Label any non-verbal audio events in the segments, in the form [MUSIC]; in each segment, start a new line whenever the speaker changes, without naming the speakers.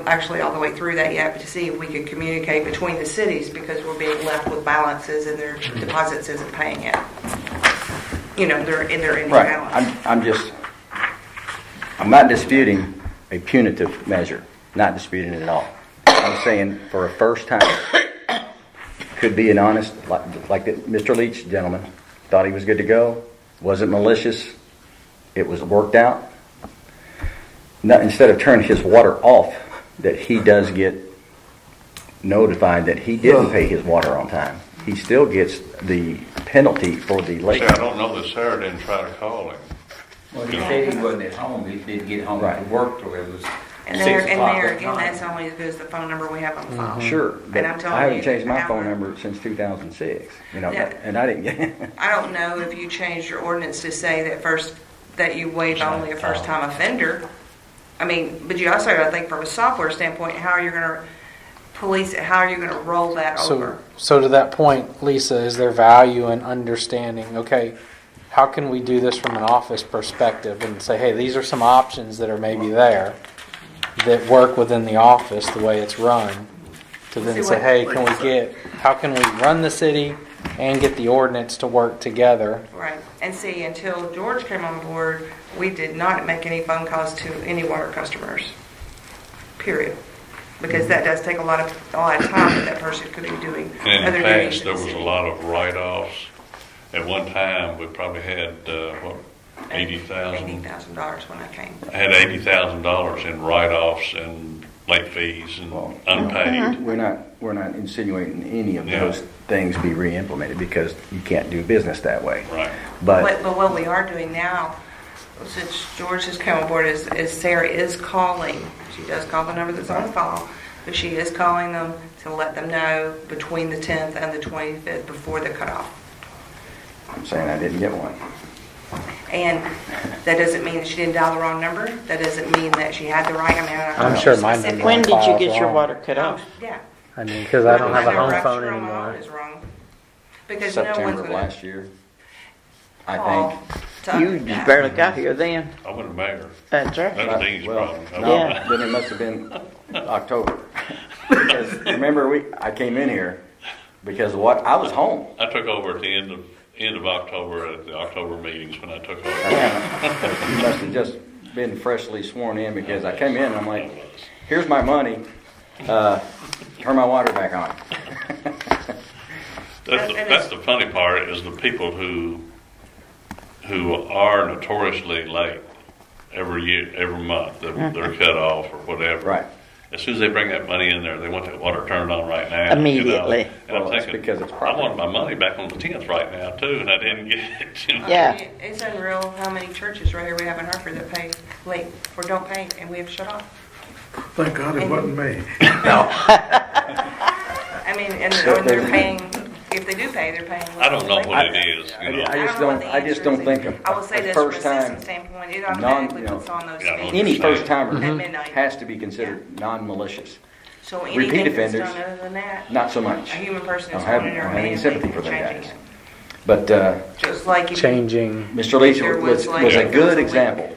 actually all the way through that yet, but to see if we could communicate between the cities because we're being left with balances and their
Mm-hmm.
deposits isn't paying it. You know, they're in their ending
Right,
balance.
I'm, I'm just, I'm not disputing a punitive measure, not disputing it at all. I'm saying for a first time, could be an honest, like, like that Mr. Leach gentleman, thought he was good to go, wasn't malicious, it was worked out. Not, instead of turning his water off, that he does get notified that he didn't pay his water on time. He still gets the penalty for the late.
See, I don't know that Sarah didn't try to call him.
Well, he said he wasn't at home, he didn't get home
Right.
from work till it was six
And there,
o'clock
and there,
at
again,
night.
that's only as good as the phone number we have on file.
Mm-hmm. Sure, but
And I'm telling
I haven't
you,
changed my
I
phone
don't-
number since 2006, you know,
Yeah.
and I didn't get,
I don't know if you changed your ordinance to say that first, that you waive only a first-time offender. I mean, but you also, I think from a software standpoint, how are you gonna police, it? how are you gonna roll that
So,
over?
so to that point, Lisa, is there value in understanding, okay, how can we do this from an office perspective and say, hey, these are some options that are maybe there that work within the office, the way it's run, to then
See
say,
what-
hey, can we get, how can we run the city and get the ordinance to work together?
Right, and see, until George came on board, we did not make any phone calls to any water customers, period. Because that does take a lot of, a lot of time that that person could be doing
And in
other
the
duties.
past, there was a lot of write-offs. At one time, we probably had, uh, what, eighty
Eighty
thousand?
thousand dollars when I came.
Had eighty thousand dollars in write-offs and late fees
[LAUGHS]
and
Well,
Uh-huh.
unpaid.
we're not, we're not insinuating any of
Yeah.
those things be re-implemented because you can't do business that way.
Right.
But,
But, but what we are doing now, since George has come on board, is, is Sarah is calling. She does call the number that's on the file, but she is calling them to let them know between the 10th and the 25th before the cutoff.
I'm saying I didn't get one.
And that doesn't mean that she didn't dial the wrong number. That doesn't mean that she had the right amount.
I'm sure mine didn't.
Specific-
When
When
did
did
Files
you get your
wrong.
water cut
Oh,
off?
Yeah.
I mean, because I don't have a
Number
home
right
phone
from mine
anymore.
Is wrong. Because no one's
September of
gonna
last year, I
call.
think.
to-
You just barely got here then.
I wasn't mayor.
That's right.
That's Dean's
Well,
problem.
no, then it must have been
[LAUGHS]
October. Because remember, we, I came in here because what, I was home.
I took over at the end of, end of October, at the October meetings when I took over.
You must have just been freshly sworn in because I came in and I'm like, here's my money, uh, turn my water back on.
That's the,
And- and
that's the funny part is the people who who are notoriously late every year, every month, they're, they're cut off or whatever.
Mm-hmm. Right.
As soon as they bring that money in there, they want that water turned on right now. you know.
Immediately.
And I'm
Well, that's
thinking,
because it's
I
property.
want my money back on the tenth right now too, and I didn't get it. [LAUGHS] you know.
Yeah.
It's unreal how many churches right here we have in Hartford that pay late or don't pay and we have shut off.
Thank God it wasn't me.
I mean, and and they're paying, if they do pay, they're paying.
I don't know
late.
what it is, you know.
I just
what
don't-
the
I just
answer
don't
is.
think of-
I will say
a
this from a
first time,
system standpoint, it automatically
you know,
puts on those
yeah, I don't
fees.
Any first timer
At midnight.
has to be considered non-malicious.
So
repeat
anything that's
offenders,
done other than that,
Not so
a
much.
human person
I
is
don't have-
holding their
I don't have any
hand
sympathy
and
for them
changing
guys.
it.
But, uh,
Just like if you
Changing.
Mr. Leach
There was
was,
like-
was
Yeah.
a good example.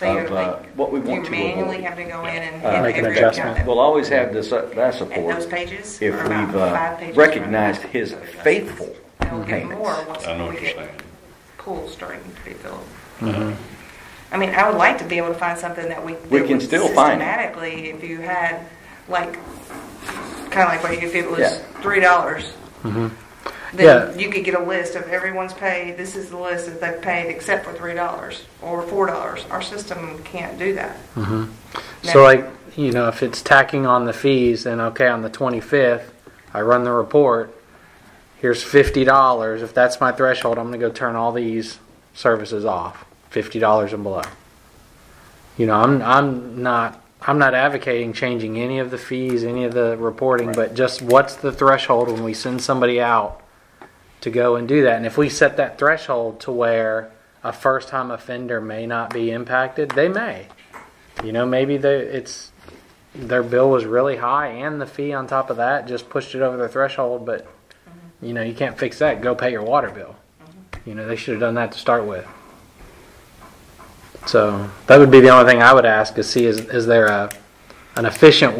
say you're
of, uh,
like,
what we want
you
to
manually
avoid.
have to go in and
Uh,
hit
Make an
every account
adjustment.
that-
We'll always have this, uh, that
And those
support
pages
if
are about
we've
five
uh,
pages.
recognized his faithful
They'll get more
payments.
once
I know
we
what you're
get
saying.
pools starting to be filled. I mean, I would like to be able to find something that we.
Mm-hmm. We
that
can
would
still find it.
Systematically, if you had, like, kind of like what you- if it was
Yeah. Mm-hmm.
three dollars.
Yeah.
Then you could get a list of everyone's paid, this is the list that they've paid except for three dollars or four dollars. Our system can't do that.
Mm-hmm.
So like, you know, if it's tacking on the fees, then okay, on the 25th, I run the report, here's $50. If that's my threshold, I'm going to go turn all these services off, $50 and below. You know, I'm, I'm not, I'm not advocating changing any of the fees, any of the reporting, but just what's the threshold when we send somebody out to go and do that? And if we set that threshold to where a first-time offender may not be impacted, they may. You know, maybe they it's their bill was really high and the fee on top of that just pushed it over the threshold, but you know, you can't fix that. Go pay your water bill. You know, they should have done that to start with. So that would be the only thing I would ask is see is is there a an efficient